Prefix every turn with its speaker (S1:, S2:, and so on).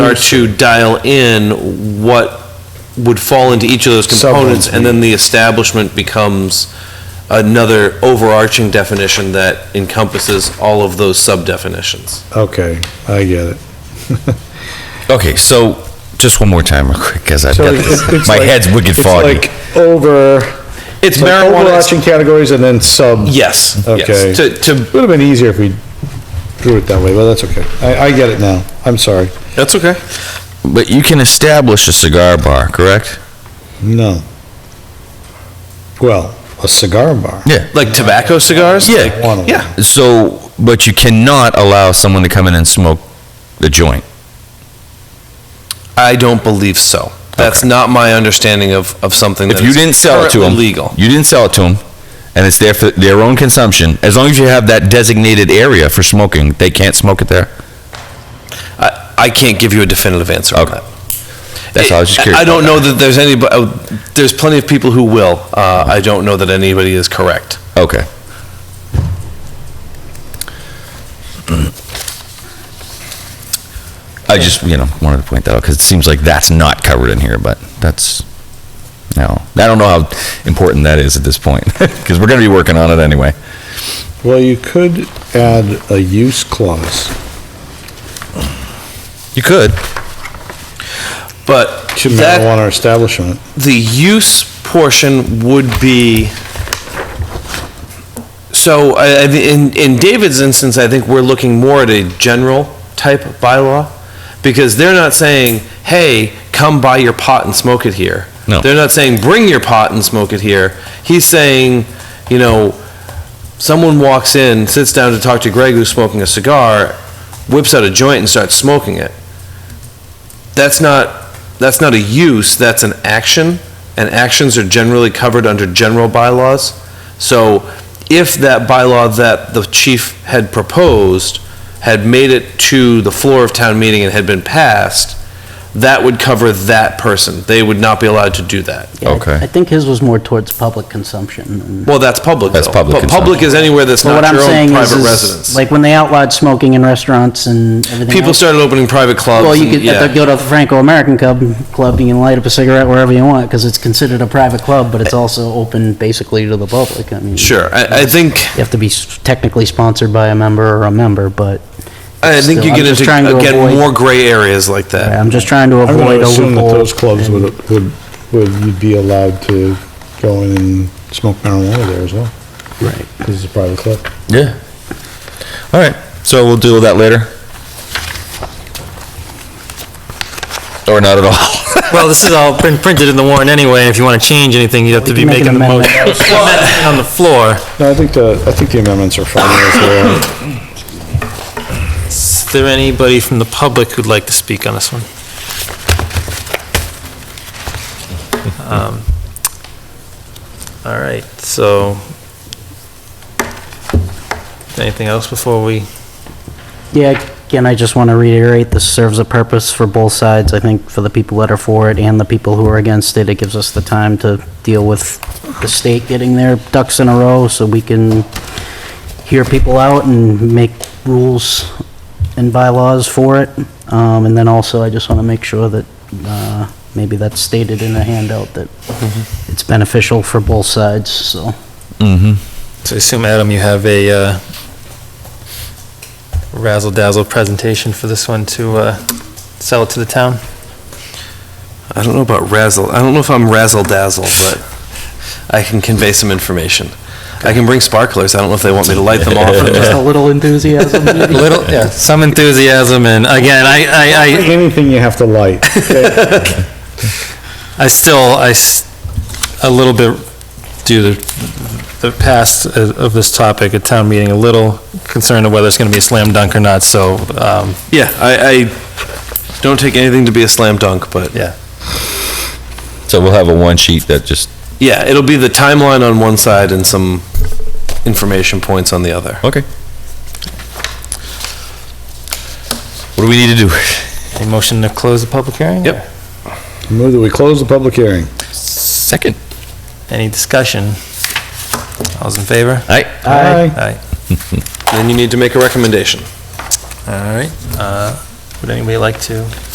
S1: are to dial in what would fall into each of those components, and then the establishment becomes another overarching definition that encompasses all of those sub-definitions.
S2: Okay, I get it.
S3: Okay, so just one more time, real quick, because I've
S2: So
S3: got
S2: it's-
S3: this.
S2: it's
S3: My
S2: like-
S3: head's wicked
S2: it's
S3: foggy.
S2: like Over,
S1: It's
S2: like
S1: marijuana,
S2: overarching categories and then sub.
S1: yes,
S2: Okay.
S1: yes. To, to,
S2: Would have been easier if we drew it that way, but that's okay. I, I get it now. I'm sorry.
S1: that's okay.
S3: But you can establish a cigar bar, correct?
S2: No. Well, a cigar bar.
S3: Yeah.
S1: Like tobacco cigars?
S3: Yeah.
S2: One of them.
S1: Yeah,
S3: So, but you cannot allow someone to come in and smoke a joint.
S1: I don't believe so. That's not my understanding of, of something that
S3: If you
S1: is
S3: didn't sell it to them.
S1: currently legal.
S3: You didn't sell it to them, and it's there for their own consumption, as long as you have that designated area for smoking, they can't smoke it there?
S1: I, I can't give you a definitive answer on
S3: Okay.
S1: that.
S3: That's all, I was just curious.
S1: I don't
S3: about
S1: know that there's any, but, uh, there's plenty of people who will. Uh, I don't know that anybody is correct.
S3: that. Okay. I just, you know, wanted to point that out, because it seems like that's not covered in here, but that's, no. I don't know how important that is at this point, because we're gonna be working on it anyway.
S2: Well, you could add a use clause.
S3: You could.
S1: But
S2: to
S1: that,
S2: marijuana establishment.
S1: the use portion would be, so I, I- in, in David's instance, I think we're looking more at a general type bylaw, because they're not saying, hey, come buy your pot and smoke it here.
S3: No.
S1: They're not saying, bring your pot and smoke it here. He's saying, you know, someone walks in, sits down to talk to Greg who's smoking a cigar, whips out a joint and starts smoking it. That's not, that's not a use, that's an action, and actions are generally covered under general bylaws. So if that bylaw that the chief had proposed had made it to the floor of town meeting and had been passed, that would cover that person. They would not be allowed to do that.
S4: Yeah, I-
S3: Okay.
S4: I think his was more towards public consumption. and-
S1: Well, that's public,
S3: That's
S1: though.
S3: public
S1: But public
S3: consumption.
S1: is anywhere that's
S4: But
S1: not
S4: what I'm
S1: your own
S4: saying is,
S1: private
S4: is,
S1: residence.
S4: like, when they outlawed smoking in restaurants and everything
S1: People
S4: else,
S1: started opening private clubs.
S4: Well, you
S1: and-
S4: could, at the-
S1: yeah.
S4: go to the Franco-American Club, club, you can light up a cigarette wherever you want, because it's considered a private club, but it's also open basically to the public, I mean.
S1: Sure, I, I think,
S4: You have to be s- technically sponsored by a member or a member, but
S1: I think you
S4: Still, I'm
S1: get
S4: just
S1: into,
S4: trying to
S1: again,
S4: avoid-
S1: more gray areas like that.
S4: I'm just trying to
S2: I would
S4: avoid a
S2: assume that
S4: loophole.
S2: those clubs
S4: and-
S2: would, would, would, you'd be allowed to go in and smoke marijuana there as well. Right. Because it's a private club.
S3: Yeah. All right, so we'll deal with that later. Or not at all.
S5: Well, this is all print- printed in the warrant anyway, and if you want to change anything, you'd have to
S4: We
S5: be
S4: can make
S5: making
S4: an
S5: the motion
S4: amendment.
S5: on the floor.
S2: No, I think the, I think the amendments are fine as they are.
S5: Is there anybody from the public who'd like to speak on this one? Um, All right, so, anything else before we,
S4: Yeah, again, I just want to reiterate, this serves a purpose for both sides, I think, for the people that are for it and the people who are against it. It gives us the time to deal with the state getting their ducks in a row so we can hear people out and make rules and bylaws for it. Um, And then also, I just want to make sure that, uh, maybe that's stated in a handout, that it's beneficial for both sides, so.
S3: Mm-hmm.
S5: so I assume, Adam, you have a uh, razzle dazzle presentation for this one to uh, sell it to the town?
S1: I don't know about razzle. I don't know if I'm razzle dazzle, but I can convey some information. I can bring sparklers. I don't know if they want me to light them off. or
S4: Just
S1: just-
S4: a little enthusiasm, maybe?
S5: Little, yeah, some enthusiasm, and again, I, I, I,
S2: Anything you have to light.
S5: I still, I, s- a little bit, due to the past of of this topic at town meeting, a little concerned of whether it's going to be a slam dunk or not, so, um,
S1: Yeah, I, I don't take anything to be a slam dunk, but
S5: yeah.
S3: So we'll have a one sheet that just,
S1: yeah, it'll be the timeline on one side and some information points on the other.
S3: okay. What do we need to do?
S5: Any motion to close the public hearing?
S1: Yep.
S2: Move that we close the public hearing.
S3: Second.
S5: Any discussion? All's in favor?
S3: All right,
S2: Aye.
S5: Aye.
S1: Then you need to make a recommendation.
S5: All right, uh, would anybody like to?